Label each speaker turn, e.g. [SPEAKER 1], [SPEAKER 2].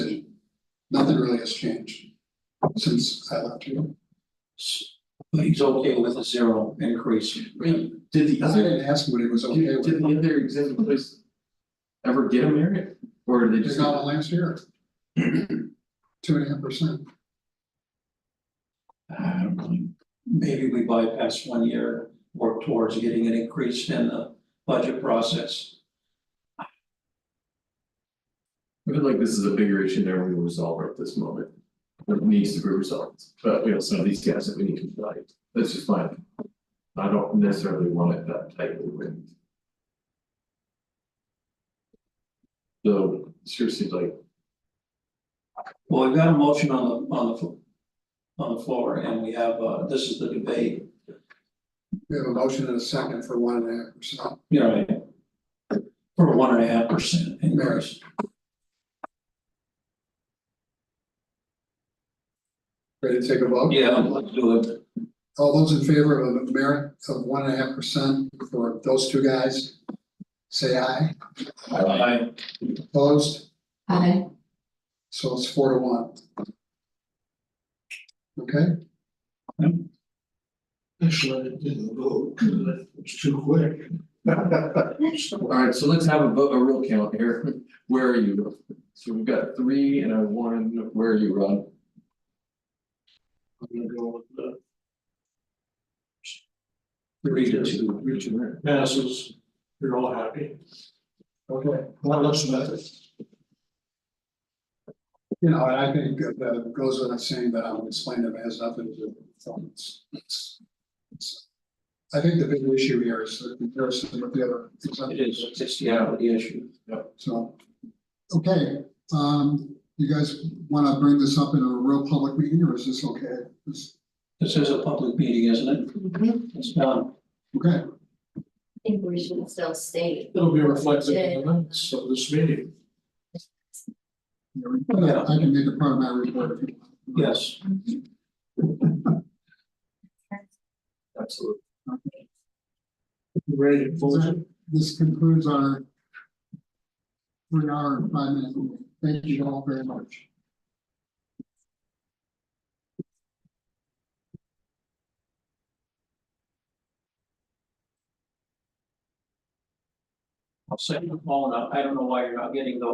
[SPEAKER 1] really has changed since I left you.
[SPEAKER 2] But he's okay with a zero increase.
[SPEAKER 3] Wait, did the
[SPEAKER 1] I
[SPEAKER 3] other,
[SPEAKER 1] didn't ask him what he was okay
[SPEAKER 3] did,
[SPEAKER 1] with,
[SPEAKER 3] did the other existing place ever get a merit, or did they
[SPEAKER 1] They
[SPEAKER 3] just?
[SPEAKER 1] got one last year. Two and a half percent,
[SPEAKER 3] "Ah, I don't really,
[SPEAKER 2] Maybe we bypass one year, work towards getting an increase in the budget process.
[SPEAKER 3] I feel like this is a bigger issue than we will resolve at this moment. That needs to be resolved, but we also have these guys that we need to fight, that's just fine. I don't necessarily want it that tightly linked. So, sure seems like,
[SPEAKER 2] Well, we've got a motion on the, on the, fl- on the floor, and we have, uh, this is the debate,
[SPEAKER 1] we have a motion and a second for one and a half percent,
[SPEAKER 2] you know, for one and a half percent increase.
[SPEAKER 1] ready to take a vote?
[SPEAKER 2] Yeah, let's do it.
[SPEAKER 1] All those in favor of a merit of one and a half percent for those two guys, say aye,
[SPEAKER 2] Aye.
[SPEAKER 1] opposed,
[SPEAKER 4] Aye.
[SPEAKER 1] so it's four to one. Okay,
[SPEAKER 5] Actually, I didn't vote, 'cause it was too quick.
[SPEAKER 3] alright, so let's have a vote, a real count here, where are you? So we've got three and a one, where are you, Rod?
[SPEAKER 5] I'm gonna go with the
[SPEAKER 2] Three to two.
[SPEAKER 5] passes, you're all happy.
[SPEAKER 1] okay,
[SPEAKER 5] One less method.
[SPEAKER 1] you know, and I think that goes without saying that I'll explain it has nothing to do with performance. It's- it's- I think the big issue here is the comparison with the other.
[SPEAKER 2] It is, it's the hourly issue.
[SPEAKER 1] So, okay, um, you guys wanna bring this up in a real public meeting, or is this okay? This-
[SPEAKER 2] This is a public meeting, isn't it?
[SPEAKER 4] I
[SPEAKER 2] It's done.
[SPEAKER 1] Okay,
[SPEAKER 4] think we should still state.
[SPEAKER 5] It'll be reflected in the minutes of this meeting.
[SPEAKER 2] Yeah.
[SPEAKER 1] I can make it part of my report if you want.
[SPEAKER 2] Yes.
[SPEAKER 3] Absolutely.
[SPEAKER 5] You Ready to close it?
[SPEAKER 1] This concludes our three hour and five minute meeting. Thank you all very much.
[SPEAKER 2] I'll send you a phone. I I don't know why you're not getting those.